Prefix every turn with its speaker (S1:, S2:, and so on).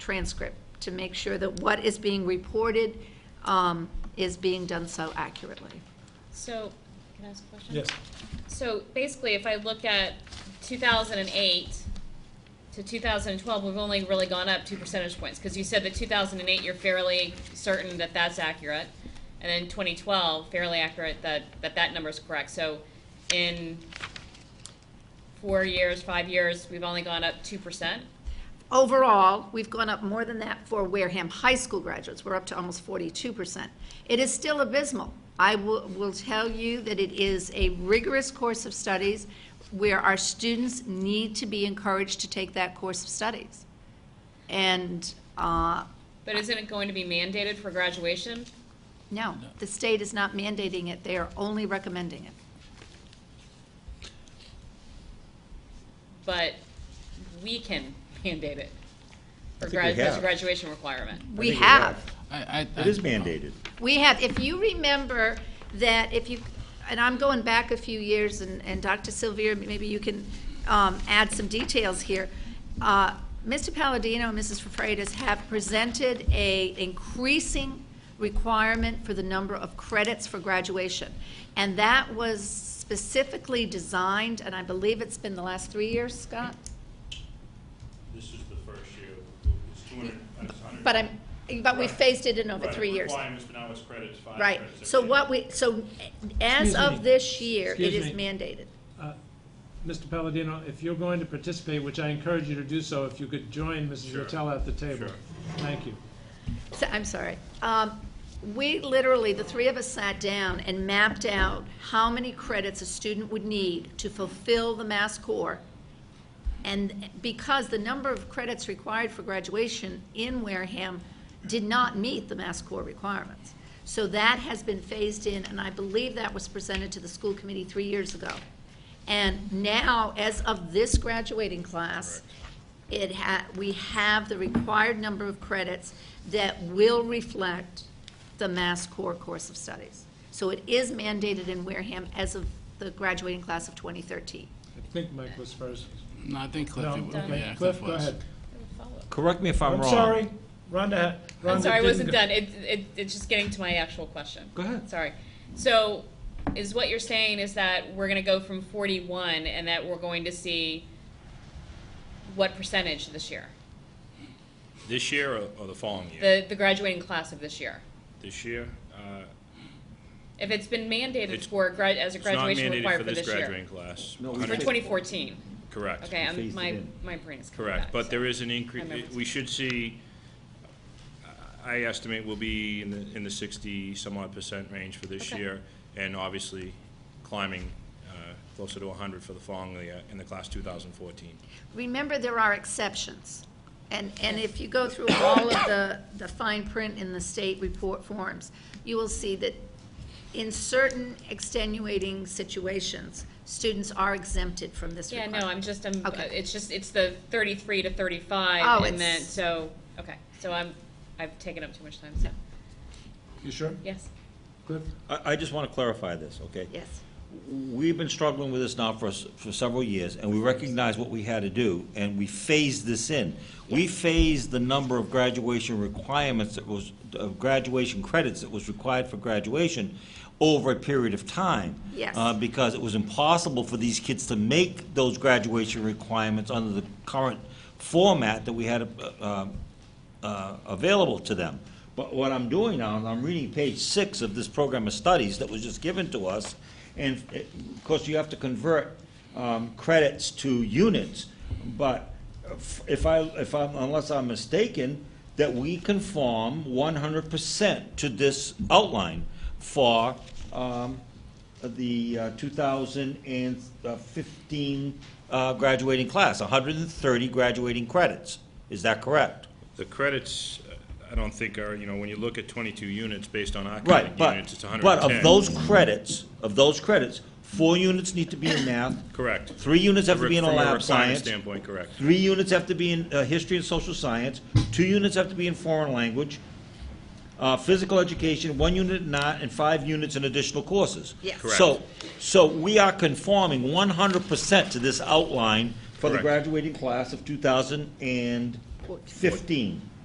S1: transcript to make sure that what is being reported um, is being done so accurately.
S2: So, can I ask a question?
S3: Yes.
S2: So basically, if I look at two thousand and eight to two thousand and twelve, we've only really gone up two percentage points, because you said that two thousand and eight, you're fairly certain that that's accurate, and then twenty twelve, fairly accurate that, that that number's correct, so in four years, five years, we've only gone up two percent?
S1: Overall, we've gone up more than that for Wareham High School graduates. We're up to almost forty-two percent. It is still abysmal. I will, will tell you that it is a rigorous course of studies where our students need to be encouraged to take that course of studies. And, uh,
S2: But isn't it going to be mandated for graduation?
S1: no, the state is not mandating it. They are only recommending it.
S2: But we can mandate it for
S4: I think we
S2: grad, as a
S4: have.
S2: graduation requirement.
S1: We
S4: think we
S1: have.
S4: have.
S5: I, I.
S4: It is mandated.
S1: We have, if you remember that if you, and I'm going back a few years, and, and Dr. Sylvia, maybe you can um, add some details here. Uh, Mr. Palladino and Mrs. Freitas have presented a increasing requirement for the number of credits for graduation. And that was specifically designed, and I believe it's been the last three years, Scott?
S6: This is the first year, it's two hundred, it's hundred.
S1: But I'm, but we phased it in over three years.
S6: Requirements, but now it's credits, five
S1: Right,
S6: credits. every
S1: so
S6: year.
S1: what we, so as
S3: Excuse me.
S1: of this year, it
S3: Excuse
S1: is
S3: me.
S1: mandated.
S3: Mr. Palladino, if you're going to participate, which I encourage you to do so, if you could join Mrs.
S6: Sure.
S3: Rattell at the table.
S6: Sure.
S3: Thank you.
S1: So- I'm sorry. Um, We literally, the three of us sat down and mapped out how many credits a student would need to fulfill the Mass Core. And because the number of credits required for graduation in Wareham did not meet the Mass Core requirements. So that has been phased in, and I believe that was presented to the school committee three years ago. And now, as of this graduating class, it ha, we have the required number of credits that will reflect the Mass Core course of studies. So it is mandated in Wareham as of the graduating class of 2013.
S3: I think Mike was first.
S5: No, I think Cliff,
S3: No,
S5: it was-
S3: okay.
S5: yeah,
S3: Cliff,
S5: Cliff
S3: go
S5: was.
S3: ahead.
S4: Correct me if I'm wrong.
S3: I'm sorry, Rhonda, Rhonda
S2: I'm sorry, I
S3: didn't
S2: wasn't
S3: go-
S2: done. It, it, it's just getting to my actual question.
S4: Go ahead.
S2: Sorry. So, is what you're saying is that we're gonna go from forty-one and that we're going to see what percentage this year?
S6: This year or, or the following year?
S2: The, the graduating class of this year?
S6: This year, uh,
S2: If it's been mandated
S6: It's-
S2: for grad, as a
S6: it's not
S2: graduation
S6: mandated
S2: required
S6: for
S2: for
S6: this
S2: this year?
S6: graduating class.
S4: No, we
S6: 100
S2: For
S4: Phased-
S2: twenty fourteen?
S6: Correct.
S2: Okay, I'm,
S4: phased it
S2: my,
S4: in.
S2: my brain's coming back.
S6: Correct, but there is an
S2: I remember
S6: increase, we should see, I estimate will be in the, in the sixty some odd percent range for this
S2: Okay.
S6: year, and obviously climbing uh, closer to hundred for the following year in the class two thousand fourteen.
S1: Remember, there are exceptions. And, and if you go through all of the, the fine print in the state report forms, you will see that in certain extenuating situations, students are exempted from this
S2: Yeah,
S1: requirement.
S2: no, I'm just, I'm, uh,
S1: Okay.
S2: it's just, it's the thirty-three to thirty-five
S1: Oh,
S2: and then,
S1: it's-
S2: so, okay. So I'm, I've taken up too much time, so,
S3: You sure,
S2: yes.
S3: Cliff?
S4: I, I just want to clarify this, okay?
S1: Yes.
S4: We've been struggling with this now for, s- for several years, and we recognize what we had to do, and we phased this in. We phased the number of graduation requirements that was, of graduation credits that was required for graduation over a period of time.
S1: Yes.
S4: Uh, because it was impossible for these kids to make those graduation requirements under the current format that we had, uh, um, uh, available to them. But what I'm doing now, is I'm reading page six of this program of studies that was just given to us, and it- of course, you have to convert um, credits to units, but if- if I, if I'm, unless I'm mistaken, that we conform 100% to this outline for um, the uh, 2015 uh, graduating class, 130 graduating credits. Is that correct?
S6: The credits, uh, I don't think are, you know, when you look at twenty-two units based on our
S4: Right,
S6: credit units, it's
S4: but,
S6: hundred
S4: but
S6: and ten.
S4: of those credits, of those credits, four units need to be in math,
S6: Correct.
S4: three units have to be in
S6: From a
S4: lab
S6: requirement
S4: science,
S6: Standpoint, correct.
S4: three units have to be in uh, history and social science, two units have to be in foreign language, uh, physical education, one unit in art, and five units in additional courses.
S1: Yes.
S6: Correct.
S4: So, so we are conforming 100% to this outline for the
S6: Correct.
S4: graduating class of 2000 and,
S1: Fourteen.
S4: 15.